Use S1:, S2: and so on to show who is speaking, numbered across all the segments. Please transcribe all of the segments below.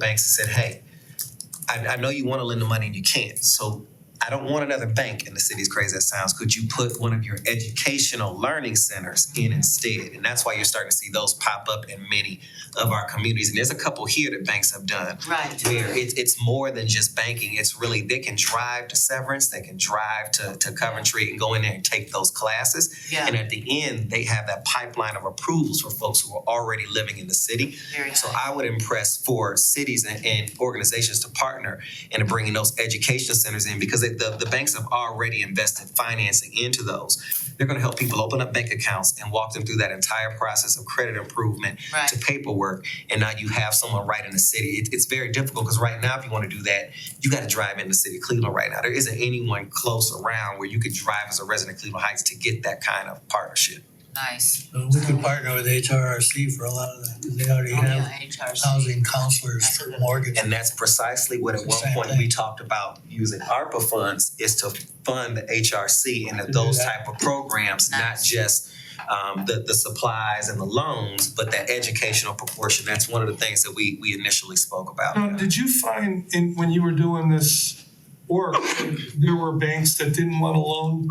S1: banks and said, hey, I, I know you wanna lend the money and you can't, so I don't want another bank in the city, as crazy as it sounds, could you put one of your educational learning centers in instead? And that's why you're starting to see those pop up in many of our communities, and there's a couple here that banks have done
S2: Right.
S1: where it's it's more than just banking. It's really they can drive to Severance, they can drive to to Coventry and go in there and take those classes. And
S2: Yeah,
S1: at the end, they have that pipeline of approvals for folks who are already living in the city.
S2: very
S1: So
S2: high.
S1: I would impress for cities and, and organizations to partner in bringing those education centers in because it, the, the banks have already invested financing into those. They're going to help people open up bank accounts and walk them through that entire process of credit improvement
S2: Right.
S1: to paperwork, and now you have someone right in the city. It, it's very difficult because right now, if you want to do that, you got to drive in the city of Cleveland right now. There isn't anyone close around where you could drive as a resident of Cleveland Heights to get that kind of partnership.
S2: Nice.
S3: Uh, We could partner with HRRC for a lot of that, 'cause they already
S2: Oh,
S3: have uh,
S2: yeah, HRC.
S3: housing counselors for mortgage.
S1: And that's precisely what at one
S3: Same
S1: point we talked about using ARPA funds is to fund the HRC and
S3: To do
S1: those
S3: that.
S1: type of programs, not
S2: Nice.
S1: just um, the, the supplies and the loans, but that educational proportion. That's one of the things that we, we initially spoke about.
S4: Now, Um, did you find in, when you were doing this work, there were banks that didn't want a loan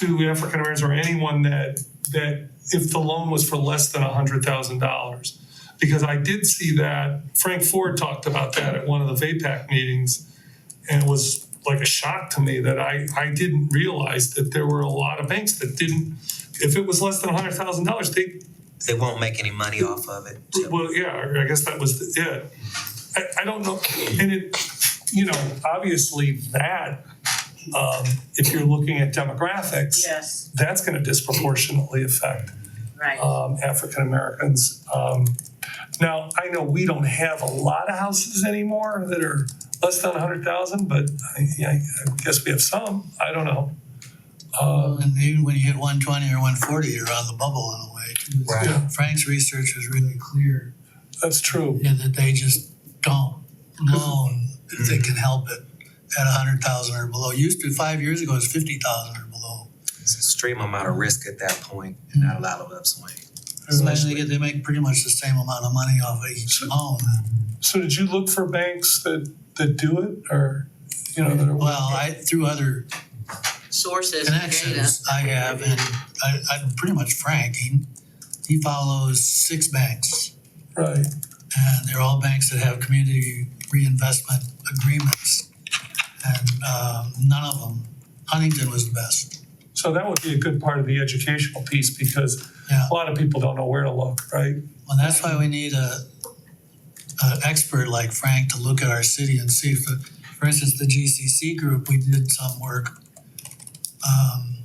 S4: to African Americans or anyone that, that if the loan was for less than a hundred thousand dollars? Because I did see that, Frank Ford talked about that at one of the VAPAC meetings. And it was like a shock to me that I, I didn't realize that there were a lot of banks that didn't, if it was less than a hundred thousand dollars, they,
S1: They won't make any money off of it. Tim.
S4: well, yeah, I guess that was, the- yeah. I, I don't know, and it, you know, obviously that, um, if you're looking at demographics,
S2: Yes,
S4: that's gonna disproportionately affect,
S2: right.
S4: um, African Americans. Um, now, I know we don't have a lot of houses anymore that are less than a hundred thousand, but I, I I guess we have some, I don't know. Um,
S3: And even when you hit one twenty or one forty, you're on the bubble in a way. 'cause
S1: Right.
S4: Yeah.
S3: Frank's research was really clear,
S4: that's true,
S3: yeah, that they just don't loan if they can help it at a hundred thousand or below. Used to, five years ago, it was fifty thousand or below.
S1: It's an extreme amount of risk at that point and not a lot of upswing.
S3: So they get, they make pretty much the same amount of money off of each loan.
S4: so did you look for banks that, that do it, or, you know, that are.
S3: Well, I, through other
S2: Sources, and data.
S3: connections I have, and I, I'm pretty much Frank, he, he follows six banks.
S4: Right.
S3: And they're all banks that have community reinvestment agreements. And, um, none of them, Huntington was the best,
S4: So that would be a good part of the educational piece because
S3: yeah.
S4: a lot of people don't know where to look, right?
S3: Well, that's why we need a, a expert like Frank to look at our city and see if, the- for instance, the GCC group, we did some work. Um,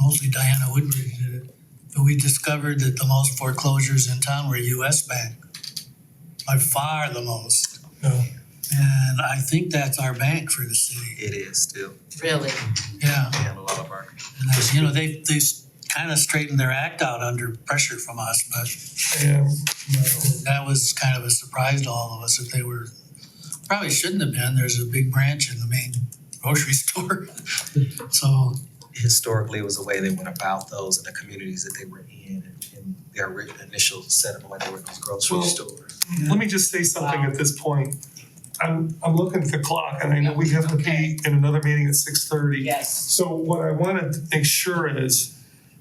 S3: mostly Diana Woodbury did it, but we discovered that the most foreclosures in town were US Bank. By far the most,
S4: No.
S3: and I think that's our bank for the city,
S1: It is still,
S2: Really,
S3: yeah.
S1: and a lot of our
S3: And that's, you know, they, they kind of straightened their act out under pressure from us, but
S4: And
S3: That was kind of a surprise to all of us that they were, probably shouldn't have been, there's a big branch in the main grocery store. So,
S1: historically it was the way they went about those in the communities that they were in and in their ri- initial setup when they were in those grocery
S4: Well-
S1: stores.
S4: let me just say something
S2: Wow.
S4: at this point. I'm, I'm looking at the clock and I know we have to be in another meeting at six thirty.
S2: yes.
S4: So what I wanna make sure is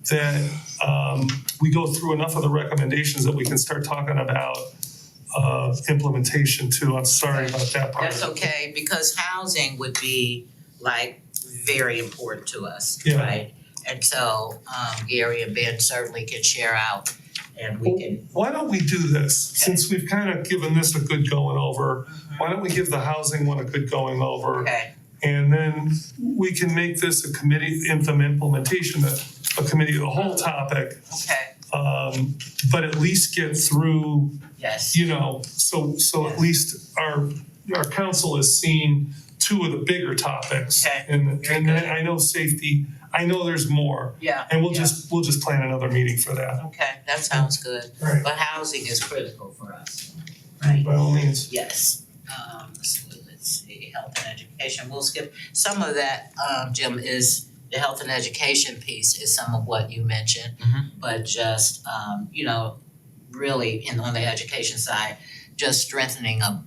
S4: that, um, we go through enough of the recommendations that we can start talking about, uh, implementation too. I'm sorry about that part.
S2: That's okay, because housing would be like very important to us,
S4: Yeah.
S2: right? And so, um, Gary and Ben certainly can share out and we can,
S4: Why don't we do this, since we've kind of given this a good going over,
S2: Mm-hmm.
S4: why don't we give the housing one a good going over?
S2: okay,
S4: And then we can make this a committee, implement- implementation, a a committee of the whole topic.
S2: okay,
S4: Um, but at least get through,
S2: yes.
S4: you know, so, so at least our, our council has seen two of the bigger topics.
S2: Okay.
S4: And,
S2: Very
S4: and
S2: good.
S4: I I know safety, I know there's more,
S2: Yeah,
S4: and we'll
S2: yeah.
S4: just, we'll just plan another meeting for that.
S2: Okay, that sounds good,
S4: Right.
S2: but housing is critical for us, right?
S4: By all means.
S2: Yes, um, so let's see, health and education, we'll skip, some of that, um, Jim, is the health and education piece is some of what you mentioned.
S1: Mhm.
S2: But just, um, you know, really, in on the education side, just strengthening a